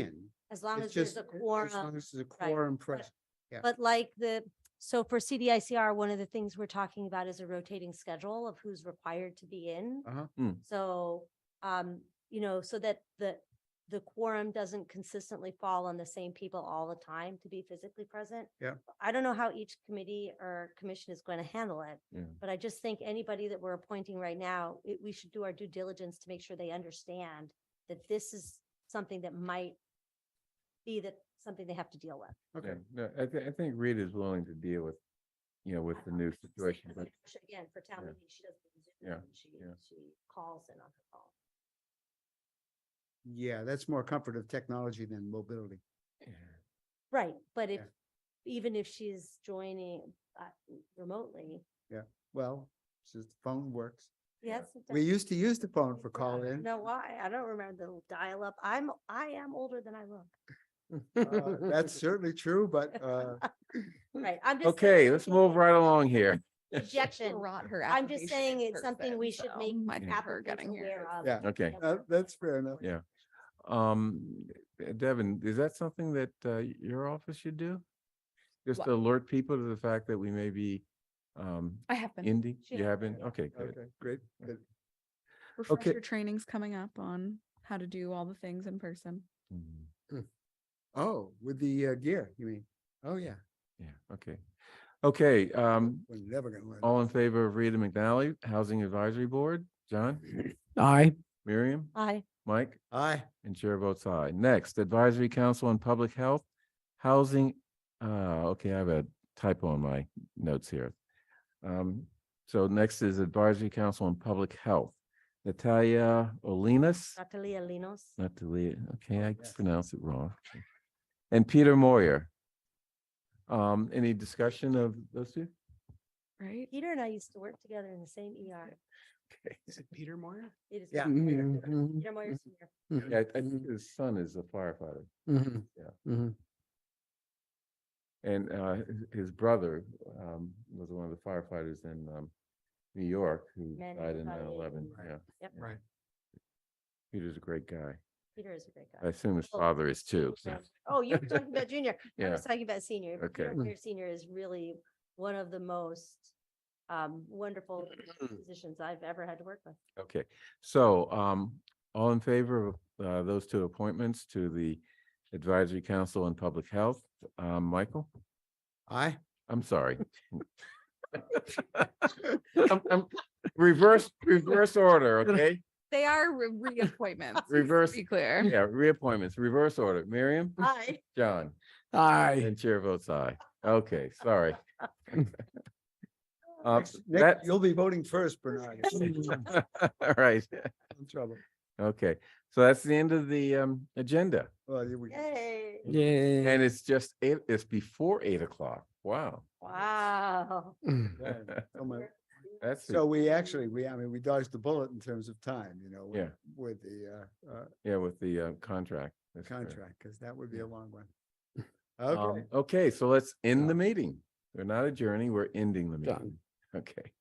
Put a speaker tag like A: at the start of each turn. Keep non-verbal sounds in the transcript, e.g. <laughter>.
A: in.
B: As long
A: It's
B: as there's
A: just-
B: a
A: as long
B: quorum.
A: as there's a quorum present. yeah.
B: But like the, so for CDICR, one of the things we're talking about is a rotating schedule of who's required to be in.
A: Uh-huh.
C: Hmm.
B: So, um, you know, so that the, the quorum doesn't consistently fall on the same people all the time to be physically present.
A: Yeah.
B: I don't know how each committee or commission is going to handle it.
C: Yeah.
B: But I just think anybody that we're appointing right now, it- we should do our due diligence to make sure they understand that this is something that might be that, something they have to deal with.
A: Okay.
C: Yeah, No, uh, I thi- I think Rita is willing to deal with, you know, with the new
B: Obviously,
C: situation,
B: because <laughs>
C: but
B: like she- Again, for town
C: Yeah.
B: meeting, she doesn't. use Zoom,
C: Yeah,
B: She,
C: yeah.
B: she calls in on her phone.
A: Yeah, that's more comfort of technology than mobility.
C: yeah.
B: Right, but if,
A: Yeah.
B: even if she's joining uh, remotely,
A: Well, since the phone works.
C: Yeah.
B: yes. it
A: We
B: does.
A: used to use the phone for
B: Yeah, I
A: call-in.
B: Know why? I don't remember the little dial-up. I'm, I am older than I look.
A: Uh,
B: <laughs>
C: <laughs>
A: That's certainly true, but uh,
B: Right, I'm just. saying
C: Hmm. Okay,
B: I
C: let's
B: think
C: move
B: that
C: right
B: <laughs>
C: along here.
B: Rejection.
C: <laughs>
D: Rot her
B: I'm just
D: application
B: saying
D: in
B: it's something
D: person,
B: we should
D: so
B: make
D: might be her
B: applicants
D: getting here.
B: aware of.
A: Yeah.
C: Okay,
A: uh, that's fair enough.
C: Yeah. um, Devin, is that something that uh, your office should do? Just
D: What?
C: alert people to the fact that we may be um,
D: I have been.
C: ending,
B: She
C: you
B: has.
C: haven't, okay, good.
A: Okay, great. good.
D: Refresher training's coming up on how to do all the things in person.
C: Mhm.
A: Oh, with the uh, gear, you mean? Oh, yeah.
C: Yeah, okay. Okay, um,
A: We're never gonna learn.
C: all in favor of Rita McNally, Housing Advisory Board, John?
E: Aye.
C: Miriam?
B: Aye.
C: Mike?
A: Aye.
C: And chair votes aye. Next, Advisory Council on Public Health, Housing, uh, okay, I have a typo in my notes here. Um, so next is Advisory Council on Public Health. Natalia Olinas,
B: Natalia Linos.
C: not to leave, okay, I
A: yes.
C: pronounced it wrong. And Peter Moyer. Um, any discussion of those two?
D: Right?
B: Peter and I used to work together in the same ER.
E: Is it Peter Moyer?
B: It is.
A: Yeah.
B: Peter
C: Mm-hmm.
B: Moyer. Peter Moyer's here.
C: Yeah, I- I think his son is a firefighter
A: Mm-hmm.
C: Yeah. and, uh, his- his brother, um, was one of the firefighters in, um, New York who
B: Manny
C: died in nine
B: Hurtado.
C: eleven,
B: Right.
C: yeah.
B: Yep.
A: Right.
C: Peter's a great guy.
B: Peter is a great guy.
C: I assume his
B: Oh,
C: father is too. so-
B: Yeah. Oh, you're talking about
C: <laughs>
B: junior. I
C: Yeah,
B: was talking about senior. but Peter
C: Okay.
B: Moyer Senior is really one of the most um,
C: <clears throat>
B: wonderful positions I've ever had to work
C: <laughs>
B: with.
C: okay. So um, all in favor of uh, those two appointments to the Advisory Council on Public Health, um, Michael?
A: Aye.
C: I'm sorry. <laughs> I'm- I'm- Reverse, reverse order, okay?
D: They are re- reappointments. just to
C: Reverse-
D: Be clear.
C: Yeah, reappointments, reverse order. Miriam,
B: Hi.
C: John,
E: Aye.
C: and chair votes aye. Okay,
E: <laughs>
C: sorry. <laughs> Um,
A: Next-
C: that-
A: next- You'll be voting first, Bernard. I'm
C: <laughs> All right, <laughs>
A: in trouble.
C: okay. So that's the end of the um, agenda.
A: Well, here we go.
B: Yay.
E: Yeah.
C: And it's just eight, it's before eight o'clock. Wow.
B: Wow.
A: Yeah, so my-
C: <laughs> Uh, That's,
A: So
C: it.
A: we actually, we, I mean, we dodged the bullet in terms of time, you know, with-
C: Yeah.
A: with the uh, uh,
C: yeah, with the uh, contract. That's correct.
A: contract, because that would be a long one.
C: Um,
A: Okay.
C: Okay, so let's end the
E: Done.
C: meeting. We're not adjourning, we're ending the
E: Done.
C: meeting. <laughs> Okay.